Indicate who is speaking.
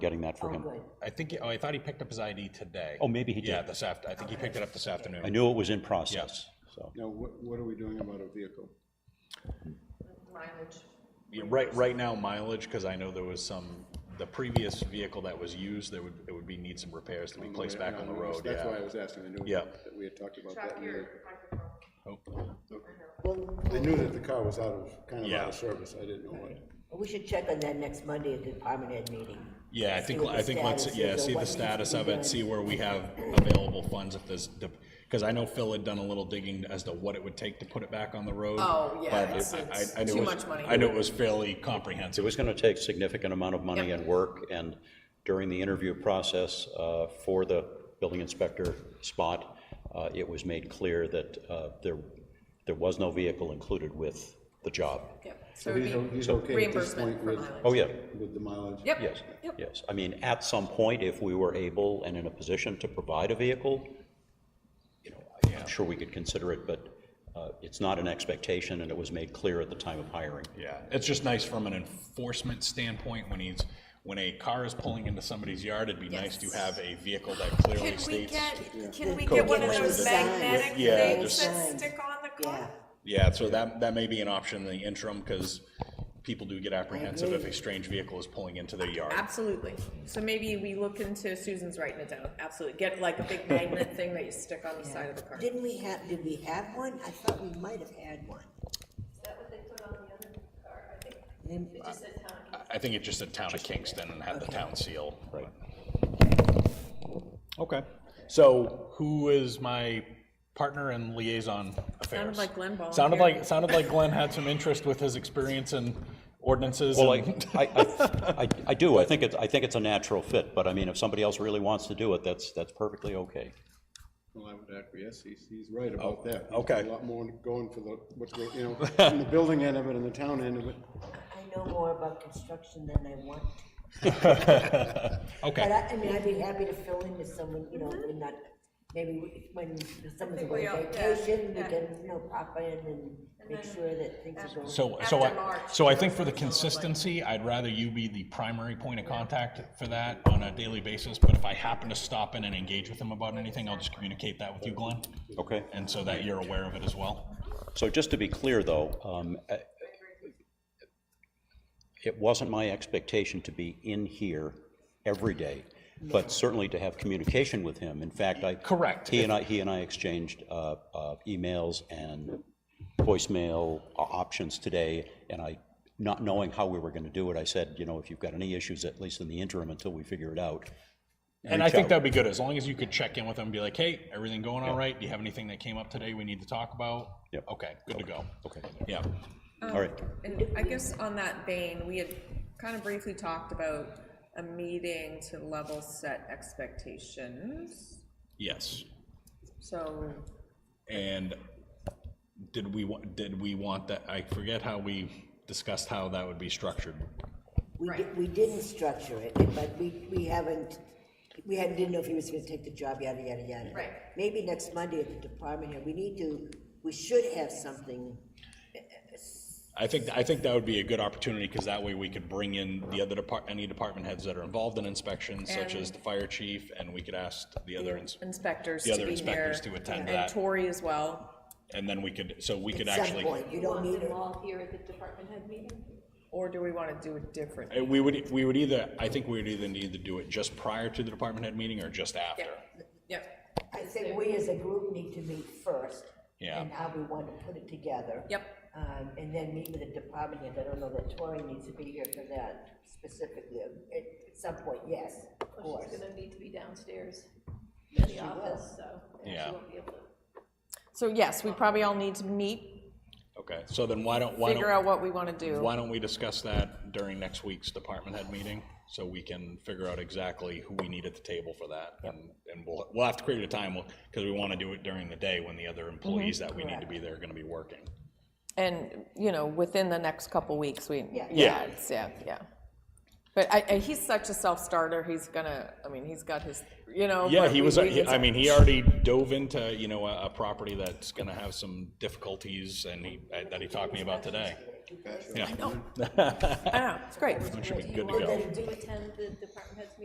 Speaker 1: getting that for
Speaker 2: Oh,
Speaker 1: him.
Speaker 2: good.
Speaker 3: I think, he- oh, I thought he picked up his ID today.
Speaker 1: Oh, maybe he
Speaker 3: Yeah,
Speaker 1: did.
Speaker 3: this after, I think he picked it up this afternoon.
Speaker 1: I knew it was in process, so.
Speaker 4: Now, what, what are we doing about a vehicle?
Speaker 5: mileage.
Speaker 3: Yeah, Right, right now mileage, because I know there was some, the previous vehicle that was used, there would, it would be, need some repairs to be placed back on the road,
Speaker 4: Mm, That's why I
Speaker 3: yeah.
Speaker 4: was asking, I knew
Speaker 3: Yeah.
Speaker 4: that we had talked about that.
Speaker 5: Track
Speaker 4: and we
Speaker 5: your
Speaker 4: were-
Speaker 5: microphone.
Speaker 3: Oh,
Speaker 4: I
Speaker 2: Well,
Speaker 4: knew that the car was out of, kind of out
Speaker 3: Yeah.
Speaker 4: of service, I didn't know what.
Speaker 2: we should check on that next Monday at the department head meeting.
Speaker 3: Yeah, I think,
Speaker 2: what the
Speaker 3: I think let's,
Speaker 2: status
Speaker 3: yeah,
Speaker 2: is or
Speaker 3: see
Speaker 2: what
Speaker 3: the
Speaker 2: needs to
Speaker 3: status
Speaker 2: be
Speaker 3: of it,
Speaker 2: done.
Speaker 3: see where we have available funds if there's, because I know Phil had done a little digging as to what it would take to put it back on the road.
Speaker 5: Oh, yeah,
Speaker 3: but
Speaker 5: it's-
Speaker 3: I- I-
Speaker 5: it's
Speaker 3: I knew it
Speaker 5: too
Speaker 3: was-
Speaker 5: much money.
Speaker 3: I know it was fairly
Speaker 1: It
Speaker 3: comprehensive.
Speaker 1: was going to take significant amount of money
Speaker 5: Yep.
Speaker 1: and work, and during the interview process uh, for the building inspector spot, uh, it was made clear that uh, there, there was no vehicle included with the job.
Speaker 5: Yep. So
Speaker 4: So he's, o-
Speaker 5: it'd be
Speaker 4: he's okay at this
Speaker 5: reimbursement
Speaker 4: point
Speaker 5: for
Speaker 4: with,
Speaker 5: mileage.
Speaker 1: Oh, yeah,
Speaker 4: with the mileage?
Speaker 5: Yep.
Speaker 1: yes,
Speaker 5: Yep.
Speaker 1: yes. I mean, at some point, if we were able and in a position to provide a vehicle, you know, I- I'm sure we could consider it, but uh, it's not an expectation, and it was made clear at the time of hiring.
Speaker 3: Yeah, it's just nice from an enforcement standpoint, when he's, when a car is pulling into somebody's yard, it'd be nice to
Speaker 5: Yes.
Speaker 3: have a vehicle that clearly
Speaker 6: Can we
Speaker 3: states.
Speaker 6: get, can we
Speaker 2: Cool.
Speaker 6: get one of
Speaker 2: Yeah.
Speaker 6: those magnetic
Speaker 3: Yeah,
Speaker 6: things
Speaker 3: just-
Speaker 6: that stick on the
Speaker 2: Yeah,
Speaker 6: car?
Speaker 3: Yeah, so that, that may be an option in the interim, because people do get apprehensive if
Speaker 2: agree.
Speaker 3: a strange vehicle is pulling into their yard.
Speaker 5: Absolutely. So maybe we look into, Susan's writing it down, absolutely. Get like a big magnet thing that you stick on the side of the car.
Speaker 2: didn't we have, did we have one? I thought we might have had one. Is that what they put on the other car, I think?
Speaker 3: I- I think it just said Town of Kingston and had the town seal. Right. Okay, so who is my partner in liaison affairs?
Speaker 5: Sounded like Glenn Ball.
Speaker 3: Sounded like, sounded like Glenn had some interest with his experience in ordinances
Speaker 1: Well, I,
Speaker 3: and,
Speaker 1: I, I- I, I do, I think it's, I think it's a natural fit, but I mean, if somebody else really wants to do it, that's, that's perfectly okay.
Speaker 4: Well, I would acquiesce, he's, he's right about that. There's
Speaker 3: Oh, okay.
Speaker 4: A lot more going for the, what's, go- you know, in the building end of it and the town end of it.
Speaker 2: I know more about construction than I want.
Speaker 3: okay.
Speaker 2: But I, I mean, I'd be happy to fill in if someone, you know, when not, maybe we- when someone's away
Speaker 6: we all-
Speaker 2: on
Speaker 6: yeah,
Speaker 2: vacation, Mm-hmm. we
Speaker 6: yeah.
Speaker 2: can, you know, pop in and make sure that things are going.
Speaker 3: So, so
Speaker 6: After
Speaker 3: I,
Speaker 6: March,
Speaker 3: so I think for the consistency, I'd rather you be the primary point of contact for that on a daily basis, but if I happen to stop in and engage with them about anything, I'll just communicate that with you, Glenn,
Speaker 1: Okay,
Speaker 3: and so that you're aware of it as well.
Speaker 1: so just to be clear, though, um, uh, it wasn't my expectation to be in here every day, but certainly to have communication with him. In fact, I.
Speaker 3: Correct.
Speaker 1: He and I, he and I exchanged uh, uh, emails and voicemail o- options today, and I, not knowing how we were going to do it, I said, you know, if you've got any issues, at least in the interim, until we figure it out.
Speaker 3: And I think that'd be good, as long as you could check in with them and be like, hey, everything going all right? Do you have anything that came up today we need to talk about?
Speaker 1: Yep.
Speaker 3: Okay, good to go.
Speaker 1: Okay,
Speaker 3: Yeah,
Speaker 1: all right.
Speaker 6: And I guess on that vein, we had kind of briefly talked about a meeting to level set expectations.
Speaker 3: yes.
Speaker 6: So
Speaker 3: And did we, wa- did we want that, I forget how we discussed how that would be structured.
Speaker 2: We di- we didn't structure it, but we, we haven't, we hadn't, didn't know if he was gonna take the job, yada, yada, yada.
Speaker 6: Right.
Speaker 2: Maybe next Monday at the department here, we need to, we should have something,
Speaker 3: I think, I think that would be a good opportunity, because that way we could bring in the other depart, any department heads that are involved in inspections, such as the fire chief, and we could ask the other, ins-
Speaker 6: inspectors
Speaker 3: The
Speaker 6: to
Speaker 3: other
Speaker 6: be here.
Speaker 3: inspectors to attend
Speaker 6: And
Speaker 3: that.
Speaker 6: Tori as well,
Speaker 3: and then we could, so we could
Speaker 2: at some
Speaker 3: actually.
Speaker 2: point, you don't need it.
Speaker 6: or do we want to do it different?
Speaker 3: Uh, We would, we would either, I think we would either need to do it just prior to the department head meeting or just after.
Speaker 6: Yep,
Speaker 2: I think we as a group need to meet first.
Speaker 3: Yeah.
Speaker 2: And how we want to put it together.
Speaker 6: Yep.
Speaker 2: Um, and then meet with the department head, I don't know that Tori needs to be here for that specifically, at at some point, yes, of course.
Speaker 7: She's gonna need to be downstairs in the office, so she
Speaker 3: Yeah.
Speaker 7: won't be able to.
Speaker 6: so yes, we probably all need to meet,
Speaker 3: Okay, so then why don't, why
Speaker 6: figure out
Speaker 3: don't,
Speaker 6: what we want to do.
Speaker 3: why don't we discuss that during next week's department head meeting? So we can figure out exactly who we need at the table for that. And, and we'll, we'll have to create a time, because we want to do it during the day when the other
Speaker 6: Mm-hmm.
Speaker 3: employees that we need to be there are going to be working.
Speaker 6: And, you know, within the next couple weeks, we, yeah,
Speaker 3: Yeah.
Speaker 6: it's- yeah, yeah. But I, I, he's such a self-starter, he's gonna, I mean, he's got his, you know.
Speaker 3: Yeah,
Speaker 6: but
Speaker 3: he
Speaker 6: Oh, we-
Speaker 3: was,
Speaker 6: we
Speaker 3: he-
Speaker 6: can-
Speaker 3: I mean, he already dove into, you know, a, a property that's going to have some difficulties and he, that he uh, talked to me about today.
Speaker 8: Gotcha.
Speaker 3: Yeah.
Speaker 9: I know, it's great.
Speaker 3: It should be good to
Speaker 6: Do you
Speaker 3: go.
Speaker 6: want them to attend the department heads meeting